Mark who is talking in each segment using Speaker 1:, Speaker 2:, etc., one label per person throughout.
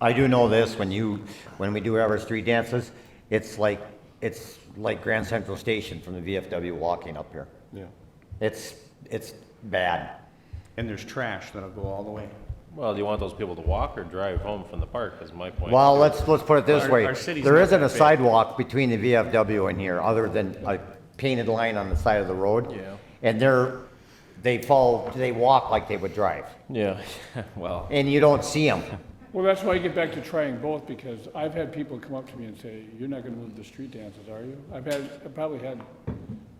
Speaker 1: I do know this, when you, when we do our street dances, it's like, it's like Grand Central Station from the VFW walking up here.
Speaker 2: Yeah.
Speaker 1: It's, it's bad.
Speaker 2: And there's trash that'll go all the way.
Speaker 3: Well, do you want those people to walk or drive home from the park is my point.
Speaker 1: Well, let's, let's put it this
Speaker 2: Our-
Speaker 1: way.
Speaker 2: our city's
Speaker 1: There
Speaker 2: not
Speaker 1: isn't a
Speaker 2: that big.
Speaker 1: sidewalk between the VFW and here, other than a painted line on the side of the road.
Speaker 3: Yeah.
Speaker 1: And they're, they fall, they walk like they would drive,
Speaker 3: Yeah, well,
Speaker 1: and you don't see them.
Speaker 4: Well, that's why I get back to trying both, because I've had people come up to me and say, you're not gonna move the street dances, are you? I've had, I probably had,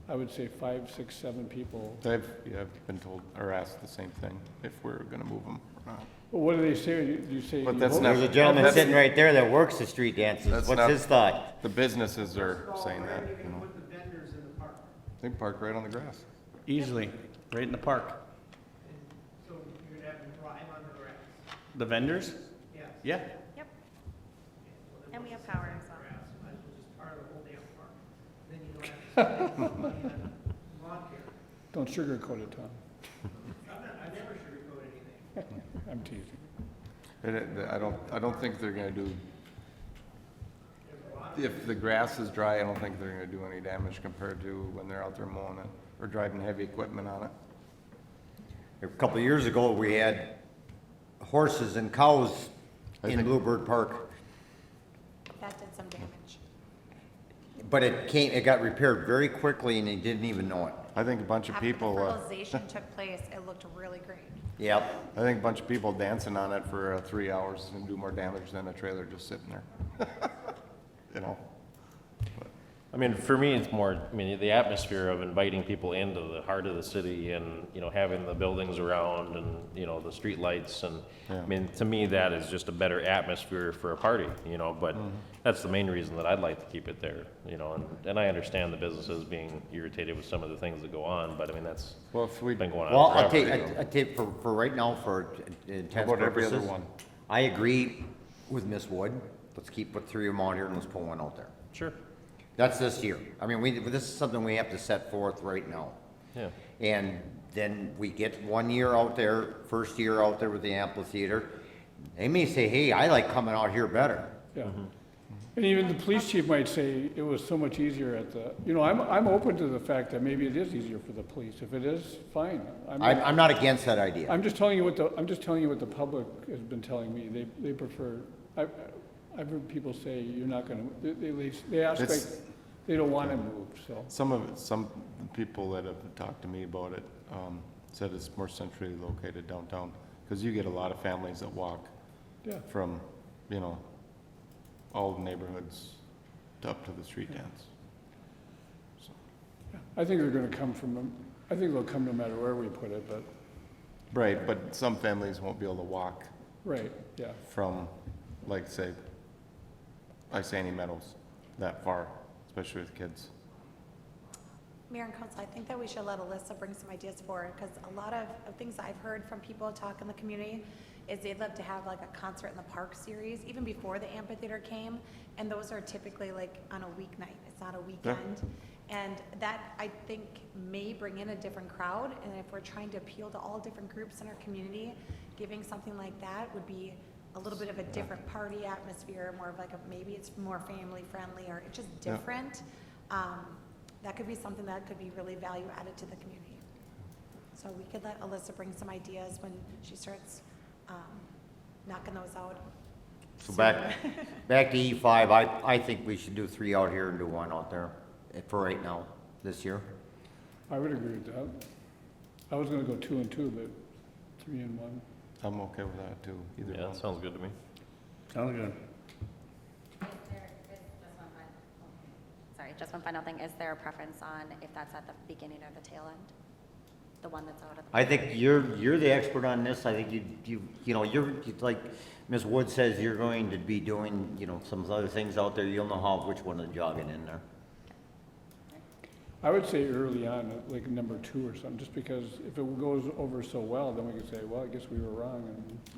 Speaker 4: I would say five, six, seven people.
Speaker 2: I've, yeah, I've been told or asked the same thing, if we're gonna move them or not.
Speaker 4: Well, what do they say? You you say.
Speaker 2: But
Speaker 4: you
Speaker 2: that's
Speaker 4: vote-
Speaker 2: not-
Speaker 1: There's a gentleman
Speaker 2: That's-
Speaker 1: sitting right there that works the street dances.
Speaker 2: That's
Speaker 1: What's
Speaker 2: not-
Speaker 1: his thought?
Speaker 2: The businesses are saying that, you know.
Speaker 5: put the vendors in the park.
Speaker 2: They park right on the grass.
Speaker 6: Easily, right in the park.
Speaker 5: So you're gonna have to drive on the grass.
Speaker 6: The vendors?
Speaker 5: Yes.
Speaker 6: Yeah.
Speaker 7: Yep. And we have power and stuff.
Speaker 5: Grass, might as well just tar the whole damn park. Then you don't have to spend money on lawn care.
Speaker 4: Don't sugarcoat it, Tom.
Speaker 5: I'm not, I never sugarcoat anything.
Speaker 4: I'm teasing.
Speaker 2: And it- I don't, I don't think they're gonna do, if the grass is dry, I don't think they're gonna do any damage compared to when they're out there mowing it or driving heavy equipment on it.
Speaker 1: A couple of years ago, we had horses and cows in Bluebird Park,
Speaker 7: That did some damage.
Speaker 1: but it came, it got repaired very quickly and they didn't even know it.
Speaker 2: I think a bunch of people,
Speaker 7: After the
Speaker 2: uh,
Speaker 7: fertilization took place, it looked really great.
Speaker 1: Yep,
Speaker 2: I think a bunch of people dancing on it for uh, three hours and do more damage than a trailer just sitting there. You know?
Speaker 3: I mean, for me, it's more, I mean, the atmosphere of inviting people into the heart of the city and, you know, having the buildings around and, you know, the streetlights and, I mean, to me, that is just a better atmosphere for a party, you know, but
Speaker 2: Mm-hmm.
Speaker 3: that's the main reason that I'd like to keep it there, you know, and, and I understand the businesses being irritated with some of the things that go on, but I mean, that's
Speaker 2: Well, if we,
Speaker 3: been going on
Speaker 1: well, I'll
Speaker 3: forever.
Speaker 1: take, I I take, for, for right now, for intense
Speaker 2: How about every other
Speaker 1: purposes,
Speaker 2: one?
Speaker 1: I agree with Ms. Wood, let's keep the three of them out here and let's pull one out there.
Speaker 3: Sure,
Speaker 1: That's this year, I mean, we, this is something we have to set forth right now.
Speaker 3: yeah.
Speaker 1: And then we get one year out there, first year out there with the amphitheater. They may say, hey, I like coming out here better.
Speaker 4: Yeah. And even the police chief might say it was so much easier at the, you know, I'm, I'm open to the fact that maybe it is easier for the police. If it is, fine. I mean,
Speaker 1: I'm, I'm not against that idea.
Speaker 4: I'm just telling you what the, I'm just telling you what the public has been telling me. They, they prefer, I, I've heard people say, you're not gonna, they, they, leave- they ask like,
Speaker 2: It's-
Speaker 4: they don't wanna move, so.
Speaker 2: some of, it- some people that have talked to me about it, um, said it's more centrally located downtown. Cause you get a lot of families that walk
Speaker 4: Yeah.
Speaker 2: from, you know, all the neighborhoods to up to the street dance.
Speaker 4: I think they're gonna come from, I think they'll come no matter where we put it, but,
Speaker 2: Right, but some families won't be able to walk
Speaker 4: right, yeah.
Speaker 2: from, like, say, Isani Meadows that far, especially with kids.
Speaker 7: Mayor and council, I think that we should let Alyssa bring some ideas forward, because a lot of, of things I've heard from people talk in the community is they'd love to have like a concert in the park series, even before the amphitheater came, and those are typically like on a weeknight, it's not a weekend. And that, I think, may bring in a different crowd, and if we're trying to appeal to all different groups in our community, giving something like that would be a little bit of a different party atmosphere, more of like a, maybe it's more family friendly, or it's just
Speaker 2: Yeah.
Speaker 7: different. Um, that could be something that could be really value added to the community. So we could let Alyssa bring some ideas when she starts um, knocking those out.
Speaker 1: So back, back to E five, I, I think we should do three out here and do one out there eh, for right now, this year.
Speaker 4: I would agree with that. I was gonna go two and two, but three and one.
Speaker 2: I'm okay with that too, either
Speaker 3: Yeah,
Speaker 2: one.
Speaker 3: that sounds good to me.
Speaker 6: Sounds good.
Speaker 8: Is there, is just one final, oh, sorry, just one final thing. Is there a preference on if that's at the beginning or the tail end? The one that's out of the.
Speaker 1: I think you're, you're the expert on this, I think you, you, you know, you're, it's like Ms. Wood says, you're going to be doing, you know, some other things out there, you'll know how, which one to jog it in there.
Speaker 4: I would say early on, like number two or something, just because if it goes over so well, then we could say, well, I guess we were wrong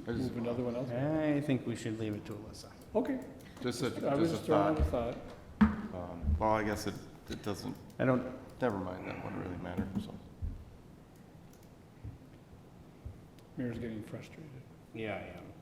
Speaker 4: and move another one else.
Speaker 6: I think we should leave it to Alyssa.
Speaker 4: Okay,
Speaker 2: Just a,
Speaker 4: I was
Speaker 2: just
Speaker 4: just
Speaker 2: a
Speaker 4: throwing
Speaker 2: thought.
Speaker 4: out a thought.
Speaker 2: Um, Well, I guess it, it doesn't,
Speaker 6: I don't,
Speaker 2: never mind, that wouldn't really matter, so.
Speaker 4: Mayor's getting frustrated.
Speaker 6: yeah, I am.